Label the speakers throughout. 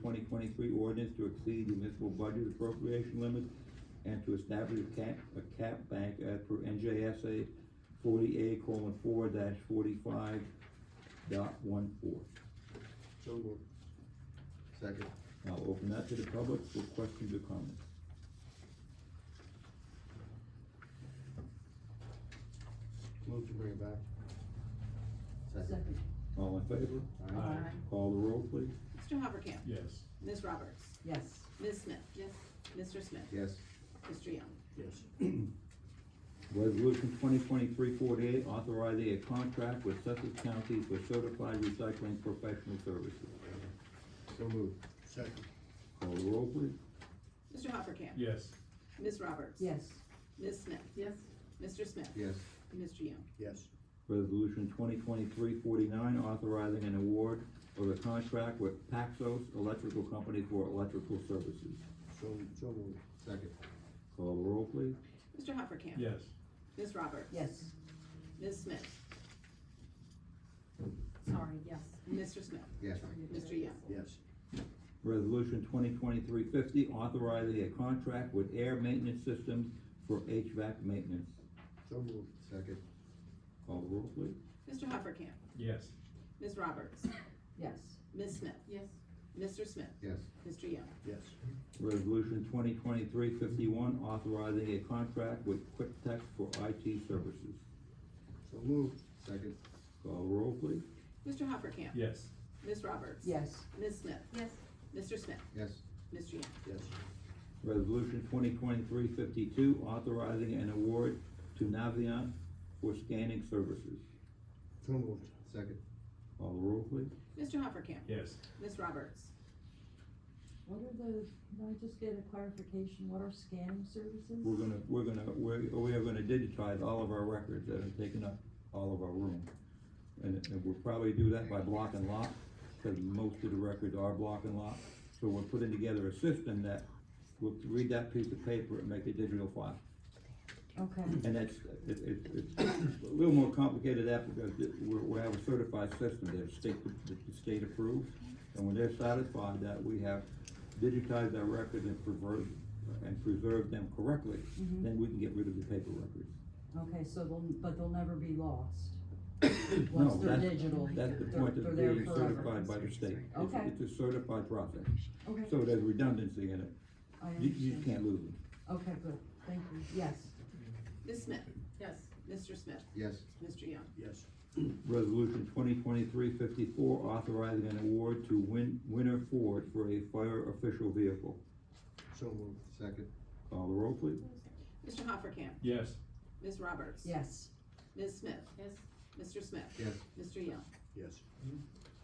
Speaker 1: twenty twenty-three ordinance to exceed the municipal budget appropriation limits and to establish a cap, a cap bank as per NJSA forty-eight colon four dash forty-five dot one four.
Speaker 2: So moved. Second.
Speaker 1: I'll open that to the public for questions or comments.
Speaker 2: Move to bring it back.
Speaker 3: Second.
Speaker 1: All in favor?
Speaker 2: Aye.
Speaker 1: Call the roll, please.
Speaker 4: Mr. Hoppercamp?
Speaker 5: yes,
Speaker 4: Ms. Roberts?
Speaker 3: Yes.
Speaker 4: Ms. Smith? Yes. Mr. Smith?
Speaker 2: Yes.
Speaker 4: Mr. Young?
Speaker 2: Yes.
Speaker 1: Resolution 2023-48 authorizing a contract with Sussex County for certified recycling professional services.
Speaker 2: So moved. Second.
Speaker 1: Call the roll, please.
Speaker 4: Mr. Hoppercamp?
Speaker 5: yes,
Speaker 4: Ms. Roberts?
Speaker 3: Yes.
Speaker 4: Ms. Smith? Yes. Mr. Smith?
Speaker 2: Yes.
Speaker 4: And Mr. Young?
Speaker 2: Yes.
Speaker 1: Resolution 2023-49 authorizing an award of a contract with Paxos Electrical Company for electrical services.
Speaker 2: So, so moved. Second.
Speaker 1: Call the roll, please.
Speaker 4: Mr. Hoppercamp?
Speaker 5: yes,
Speaker 4: Ms. Roberts?
Speaker 3: Yes.
Speaker 4: Ms. Smith?
Speaker 6: Sorry, yes.
Speaker 4: Mr. Smith?
Speaker 2: Yes.
Speaker 4: Mr. Young?
Speaker 2: Yes.
Speaker 1: Resolution 2023-50 authorizing a contract with Air Maintenance Systems for HVAC maintenance.
Speaker 2: So moved. Second.
Speaker 1: Call the roll, please.
Speaker 4: Mr. Hoppercamp?
Speaker 5: yes,
Speaker 4: Ms. Roberts?
Speaker 3: Yes.
Speaker 4: Ms. Smith?
Speaker 6: Yes.
Speaker 4: Mr. Smith?
Speaker 2: Yes.
Speaker 4: Mr. Young?
Speaker 2: Yes.
Speaker 1: Resolution 2023-51 authorizing a contract with QuickTech for IT services.
Speaker 2: So moved. Second.
Speaker 1: Call the roll, please.
Speaker 4: Mr. Hoppercamp?
Speaker 5: yes,
Speaker 4: Ms. Roberts?
Speaker 3: Yes.
Speaker 4: Ms. Smith?
Speaker 6: Yes.
Speaker 4: Mr. Smith?
Speaker 2: Yes.
Speaker 4: Mr. Young?
Speaker 2: Yes.
Speaker 1: Resolution 2023-52 authorizing an award to Naviant for scanning services.
Speaker 2: So moved. Second.
Speaker 1: Call the roll, please.
Speaker 4: Mr. Hoppercamp?
Speaker 5: yes.
Speaker 4: Ms. Roberts?
Speaker 3: What are the, can I just get a clarification, what are scanning services?
Speaker 1: We're gonna, we're gonna, we're, we are gonna digitize all of our records that are taking up all of our room. And, and we'll probably do that by block and lock, because most of the records are block and lock. So we're putting together a system that will read that piece of paper and make a digital file.
Speaker 3: Okay,
Speaker 1: And that's, it, it, it's a little more complicated after, because it- we're, we have a certified system that the state, that the state approves. And when they're satisfied that we have digitized our records and preserved, and preserved them correctly,
Speaker 3: Mhm.
Speaker 1: then we can get rid of the paper records.
Speaker 3: okay, so they'll, but they'll never be lost.
Speaker 1: No,
Speaker 3: Once they're
Speaker 1: that's-
Speaker 3: digital.
Speaker 1: That's the
Speaker 3: they're-
Speaker 1: point of
Speaker 3: they're there
Speaker 1: being
Speaker 3: forever.
Speaker 1: certified by the state. It's-
Speaker 3: Okay.
Speaker 1: It's a certified process,
Speaker 3: Okay,
Speaker 1: so there's redundancy in it.
Speaker 3: I
Speaker 1: You, you
Speaker 3: understand.
Speaker 1: can't lose them.
Speaker 3: Okay, good, thank you, yes.
Speaker 4: Ms. Smith?
Speaker 6: Yes.
Speaker 4: Mr. Smith?
Speaker 2: Yes.
Speaker 4: Mr. Young?
Speaker 2: Yes.
Speaker 1: Resolution 2023-54 authorizing an award to Win, Winter Ford for a fire official vehicle.
Speaker 2: So moved. Second.
Speaker 1: Call the roll, please.
Speaker 4: Mr. Hoppercamp?
Speaker 5: Yes,
Speaker 4: Ms. Roberts?
Speaker 3: Yes.
Speaker 4: Ms. Smith?
Speaker 6: Yes.
Speaker 4: Mr. Smith?
Speaker 2: Yes.
Speaker 4: Mr. Young?
Speaker 2: Yes.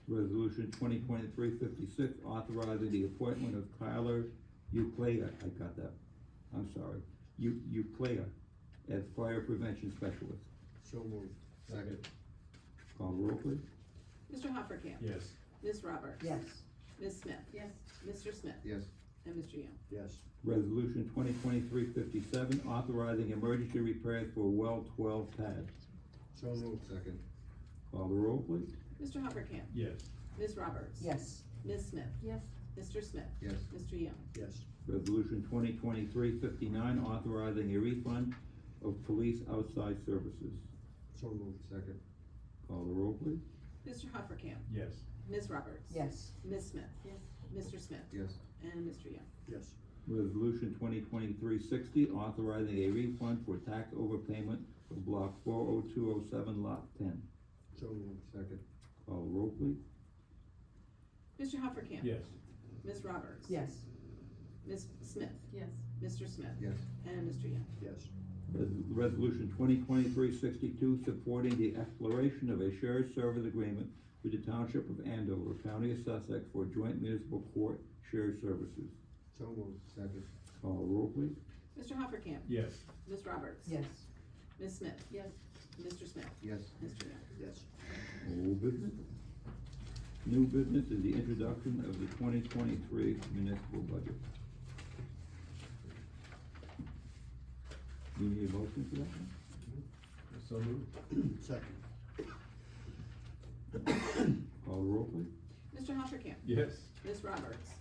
Speaker 1: Resolution 2023-56 authorizing the appointment of Tyler Uclea, I got that, I'm sorry, U- Uclea as fire prevention specialist.
Speaker 2: So moved. Second.
Speaker 1: Call the roll, please.
Speaker 4: Mr. Hoppercamp?
Speaker 5: yes,
Speaker 4: Ms. Roberts?
Speaker 3: Yes.
Speaker 4: Ms. Smith?
Speaker 6: Yes.
Speaker 4: Mr. Smith?
Speaker 2: Yes.
Speaker 4: And Mr. Young?
Speaker 2: Yes.
Speaker 1: Resolution 2023-57 authorizing emergency repairs for well 12 pad.
Speaker 2: So moved. Second.
Speaker 1: Call the roll, please.
Speaker 4: Mr. Hoppercamp?
Speaker 5: yes,
Speaker 4: Ms. Roberts?
Speaker 3: Yes.
Speaker 4: Ms. Smith?
Speaker 6: Yes.
Speaker 4: Mr. Smith?
Speaker 2: Yes.
Speaker 4: Mr. Young?
Speaker 2: Yes.
Speaker 1: Resolution 2023-59 authorizing a refund of police outside services.
Speaker 2: So moved. Second.
Speaker 1: Call the roll, please.
Speaker 4: Mr. Hoppercamp?
Speaker 5: yes,
Speaker 4: Ms. Roberts?
Speaker 3: Yes.
Speaker 4: Ms. Smith?
Speaker 6: Yes.
Speaker 4: Mr. Smith?
Speaker 2: Yes.
Speaker 4: And Mr. Young?
Speaker 2: Yes.
Speaker 1: Resolution 2023-60 authorizing a refund for tax overpayment of block 40207, lot 10.
Speaker 2: So moved. Second.
Speaker 1: Call the roll, please.
Speaker 4: Mr. Hoppercamp?
Speaker 5: yes,
Speaker 4: Ms. Roberts?
Speaker 3: Yes.
Speaker 4: Ms. Smith?
Speaker 6: Yes.
Speaker 4: Mr. Smith?
Speaker 2: Yes.
Speaker 4: And Mr. Young?
Speaker 2: Yes.
Speaker 1: Res- Resolution 2023-62 supporting the exploration of a shared service agreement with the Township of Andover, County of Sussex for joint municipal court shared services.
Speaker 2: So moved. Second.
Speaker 1: Call the roll, please.
Speaker 4: Mr. Hoppercamp?
Speaker 5: yes,
Speaker 4: Ms. Roberts?
Speaker 3: Yes.
Speaker 4: Ms. Smith?
Speaker 6: Yes.
Speaker 4: Mr. Smith?
Speaker 2: Yes.
Speaker 4: Mr. Young?
Speaker 2: Yes.
Speaker 1: Old business. New business is the introduction of the 2023 municipal budget. Do you need a motion for that? one?
Speaker 5: so moved,
Speaker 2: Second.
Speaker 1: Call the roll, please.
Speaker 4: Mr. Hoppercamp?
Speaker 5: yes,
Speaker 4: Ms. Roberts?